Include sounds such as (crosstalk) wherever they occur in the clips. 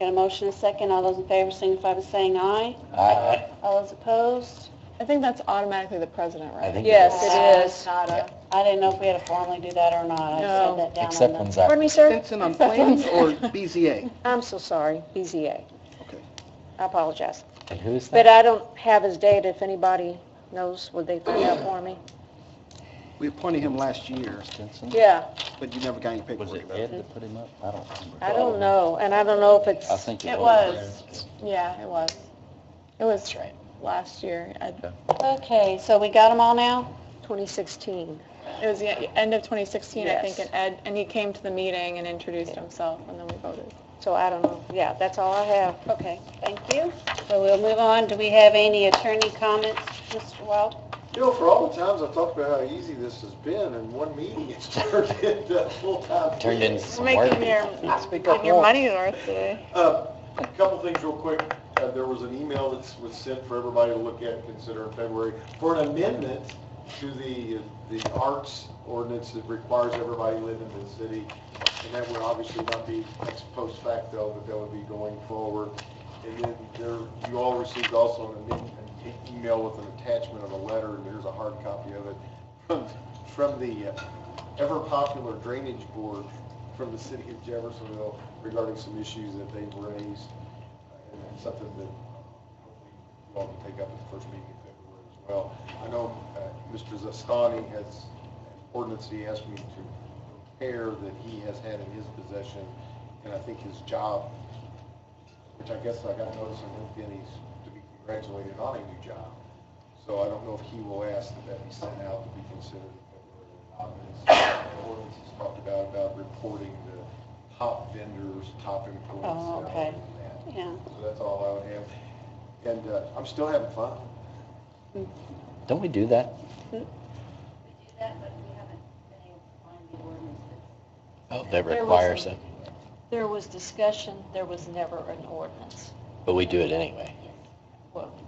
Got a motion and a second. All those in favor signify by saying aye. Aye. All those opposed? I think that's automatically the president, I right? think. Yes, it is. Not a- I didn't know if we had to formally do that or not. I No. said that down on Except the- when Pardon Zach, me, sir? Benson on plans or BZA? (laughs) I'm so sorry, BZA. Okay. I apologize. and who is But uh, that? I don't have his date. If anybody knows, would they find out for me? We appointed him last year, Stinson? Yeah, but you never got any Was paperwork it about it. Ed that put him up? I don't remember. I don't know, and I don't know if it's, I think it It was. Yeah, it was. It was right. last year. uh, I- Okay, so we got them all now? 2016. It was the e- end of 2016, I think, Yes. and Ed, and he came to the meeting and introduced himself, and then we voted. So I don't know. Yeah, that's all I have. Okay, thank you. So we'll move on. Do we have any attorney comments, Mr. Wild? You know, for all the times I talked about how easy this has been, in one meeting, it's (laughs) turned into a full-time. Turned into business. some work. Getting your money's worth today. Uh, A couple things real quick. Uh, There was an email that was sent for everybody to look at and consider in February for an amendment to the, the arts ordinance that requires everybody living in the city. And that would obviously not be ex post facto, but that would be going forward. And then there, you all received also an amend- an email with an attachment of a letter, and there's a hard copy of it, from, from the uh, ever-popular Drainage Board from the city of Jeffersonville regarding some issues that they've raised, uh, and that's something that hopefully you all can take up at the first meeting in February as well. I know uh, Mr. Zastani has an ordinance he asked me to prepare that he has had in his possession, and I think his job, which I guess I got notice on LinkedIn, he's to be congratulated on a new job. So I don't know if he will ask that that be sent out to be considered in February or not. but it's- the Ordinance is talked about, about reporting the top vendors, top employees. Oh, okay. salaries and that. Yeah. So that's all I would have. And uh, I'm still having fun. Don't we do that? Oh, that There was requires some- it, There was discussion, there was never an ordinance. but we do it anyway.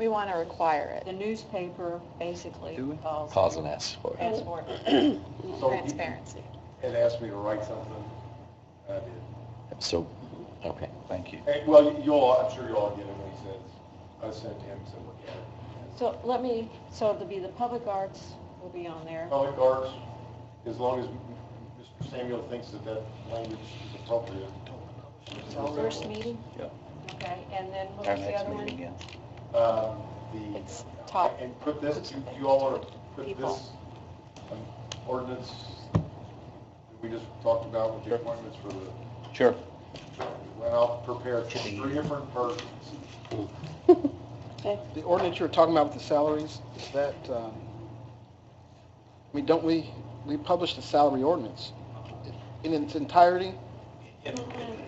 We want to require The it. newspaper basically Do we? calls Calls and asks for as it. ordinance. So Transparency. It asked me to write something. I did. So, okay, thank you. Hey, Well, you all, I'm sure you all get it when he says, I sent him, so look at it. So let me, so it'll be the public arts will be on there. Public arts, as long as Mr. Samuel thinks that that language is appropriate. First meeting? Yep. Okay, and then what Our was the next other meeting one? again. Um, The, It's top. and put this, you- you all want to put People. this um, ordinance that we just talked about with the appointments for the Sure. Well, I'll prepare three different versions. The ordinance you were talking about with the salaries, is that, um, I mean, don't we, we publish the salary ordinance in its entirety? And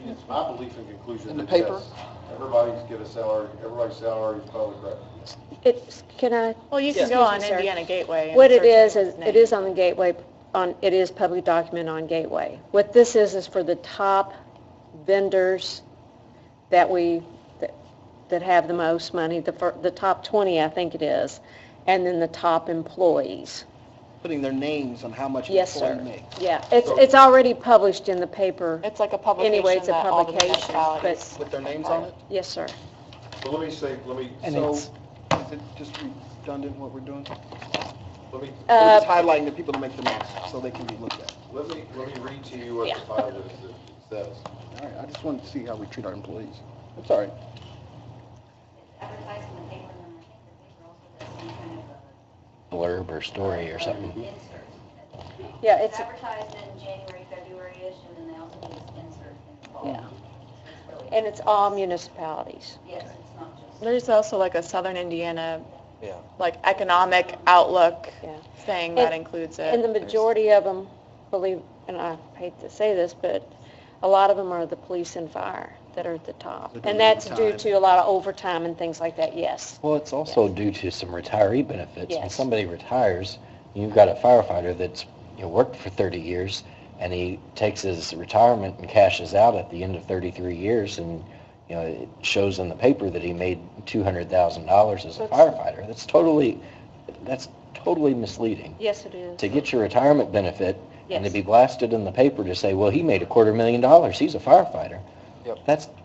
It's my belief and conclusion. In the that paper? yes, Everybody's get a salary, everybody's salary is public record. It's, can I Well, you can Yeah. go on Excuse me, sir. Indiana Gateway. and What it search is, his is name. it is on the Gateway, on, it is public document on Gateway. What this is, is for the top vendors that we, that- that have the most money, the, fir- the top 20, I think it is, and then the top employees. Putting their names on how much an Yes, sir. employee makes? Yeah, it's, it's already published in the paper. It's like a publication Anyway, it's a that all the publication, but- municipalities- With their names on it? Yes, sir. Well, let me say, let me, And So, it's- is it just redundant what we're doing? let me, We're just Uh, highlighting the people that make the most, so they can be looked at. let me, let me read to you what the file is that says. All right, I just wanted to see how we treat our employees. That's all right. advertised in the paper, and I think the paper also does some kind of a Blurb or story or something. insert. Yeah, It's it's, advertised in January, February-ish, and then they also do this insert in the fall. Yeah. It's really- and it's all municipalities. Yes, it's not just. There's also like a Southern Indiana, Yeah. like economic outlook Yeah. thing that And- includes it. And the majority of them, believe, and I hate to say this, but a lot of them are the police and fire that are at the top. They're doing And that's due overtime. to a lot of overtime and things like that, yes. Well, it's also due to some retiree benefits. When Yes. somebody retires, you've got a firefighter that's, you know, worked for 30 years, and he takes his retirement and cashes out at the end of 33 years, and, you know, it shows in the paper that he made $200,000 as a firefighter. That's totally, that's totally misleading. Yes, it is. To get your retirement benefit and to Yes. be blasted in the paper to say, well, he made a quarter million dollars, he's a firefighter. Yep. That's